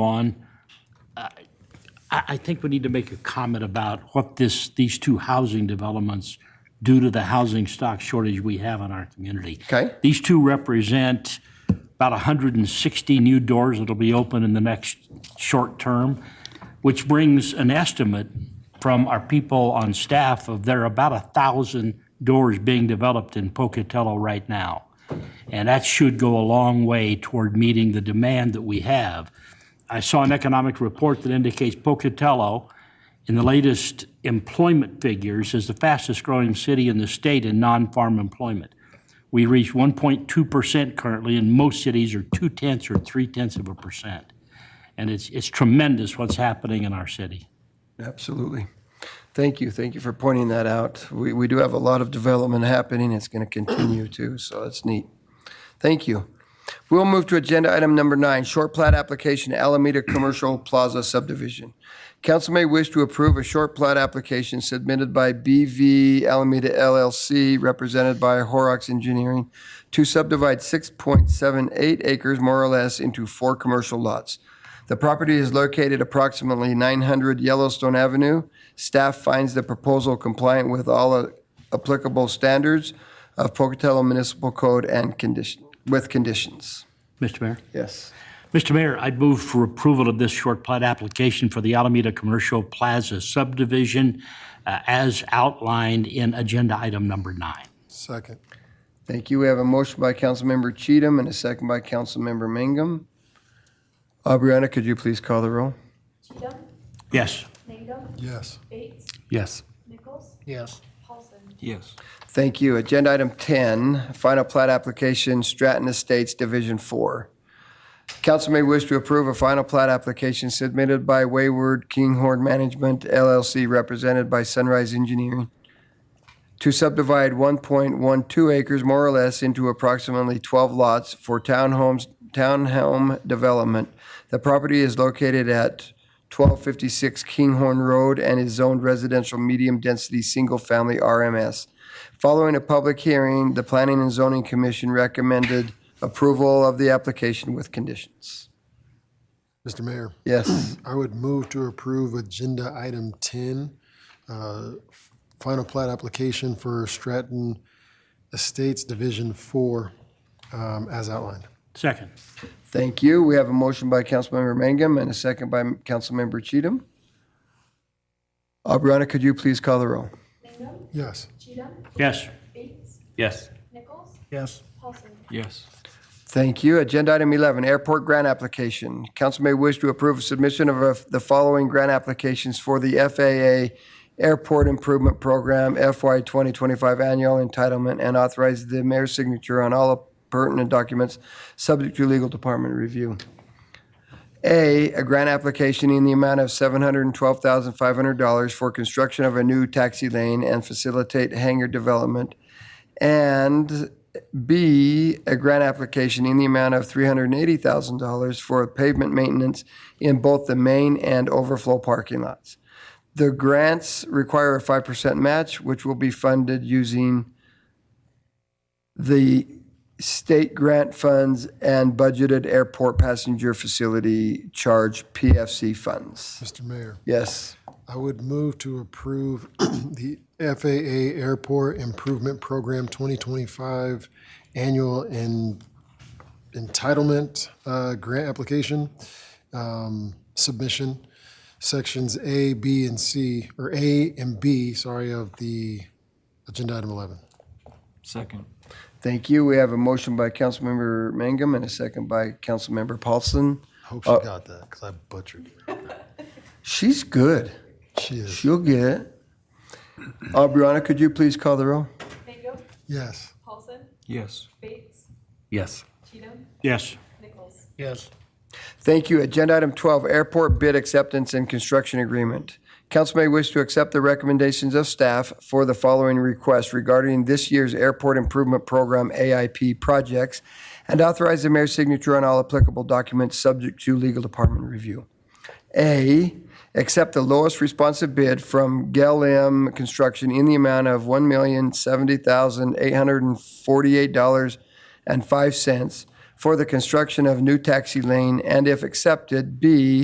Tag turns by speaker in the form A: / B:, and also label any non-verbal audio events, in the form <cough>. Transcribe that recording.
A: on. Uh, I, I think we need to make a comment about what this, these two housing developments do to the housing stock shortage we have in our community.
B: Okay.
A: These two represent about 160 new doors that'll be open in the next short term, which brings an estimate from our people on staff of there are about 1,000 doors being developed in Pocatello right now. And that should go a long way toward meeting the demand that we have. I saw an economic report that indicates Pocatello, in the latest employment figures, is the fastest-growing city in the state in non-farm employment. We reach 1.2% currently, and most cities are two-tenths or three-tenths of a percent. And it's it's tremendous what's happening in our city.
B: Absolutely. Thank you. Thank you for pointing that out. We, we do have a lot of development happening. It's going to continue too, so that's neat. Thank you. We'll move to agenda item number nine, short plat application Alameda Commercial Plaza subdivision. Council may wish to approve a short plat application submitted by BV Alameda LLC, represented by Horrocks Engineering, to subdivide 6.78 acres more or less into four commercial lots. The property is located approximately 900 Yellowstone Avenue. Staff finds the proposal compliant with all uh, applicable standards of Pocatello Municipal Code and condition, with conditions.
A: Mr. Mayor?
B: Yes.
A: Mr. Mayor, I'd move for approval of this short plat application for the Alameda Commercial Plaza subdivision uh, as outlined in agenda item number nine.
C: Second.
B: Thank you. We have a motion by Councilmember Cheatham and a second by Councilmember Mangum. Aubriana, could you please call the roll?
D: Cheatham,
A: Yes.
D: Mangum,
C: Yes.
D: Bates,
C: Yes.
D: Nichols,
C: Yes.
D: Paulson.
E: Yes.
B: Thank you. Agenda item 10, final plat application, Stratton Estates Division 4. Council may wish to approve a final plat application submitted by Wayward Kinghorn Management LLC, represented by Sunrise Engineering, to subdivide 1.12 acres more or less into approximately 12 lots for townhomes, townhome development. The property is located at 1256 Kinghorn Road and is zoned residential medium-density, single-family RMS. Following a public hearing, the Planning and Zoning Commission recommended approval of the application with conditions.
C: Mr. Mayor,
B: Yes,
C: I would move to approve Agenda Item 10, uh, Final Plat Application for Stratton Estates Division 4, um, as outlined.
A: Second.
B: thank you. We have a motion by Councilmember Mangum and a second by Councilmember Cheatham. Aubriana, could you please call the roll?
D: Mangum,
C: Yes.
D: Cheatham,
A: Yes.
D: Bates,
E: Yes.
D: Nichols,
A: Yes.
D: Paulson.
E: Yes.
B: Thank you. Agenda item 11, airport grant application. Council may wish to approve submission of uh, the following grant applications for the FAA Airport Improvement Program FY 2025 Annual Entitlement and authorize the mayor's signature on all pertinent documents, subject to legal department review. A, a grant application in the amount of $712,500 for construction of a new taxi lane and facilitate hangar development. And B, a grant application in the amount of $380,000 for pavement maintenance in both the main and overflow parking lots. The grants require a 5% match, which will be funded using the state grant funds and budgeted airport passenger facility charge PFC funds.
C: Mr. Mayor,
B: Yes.
C: I would move to approve <clears throat> the FAA Airport Improvement Program 2025 Annual and Entitlement uh, Grant Application um, Submission, Sections A, B, and C, or A and B, sorry, of the Agenda Item 11.
E: Second.
B: Thank you. We have a motion by Councilmember Mangum and a second by Councilmember Paulson.
C: Hope she got that, because I butchered it.
B: She's good.
C: She is.
B: She'll get it. Aubriana, could you please call the roll?
D: Mangum,
C: Yes.
D: Paulson,
E: Yes.
D: Bates,
E: Yes.
D: Cheatham,
A: Yes.
D: Nichols.
B: Thank you. Agenda item 12, airport bid acceptance and construction agreement. Council may wish to accept the recommendations of staff for the following request regarding this year's Airport Improvement Program AIP projects and authorize the mayor's signature on all applicable documents subject to legal department review. A, accept the lowest responsive bid from Gelim Construction in the amount of $1,070,848.05 for the construction of new taxi lane, and if accepted, B,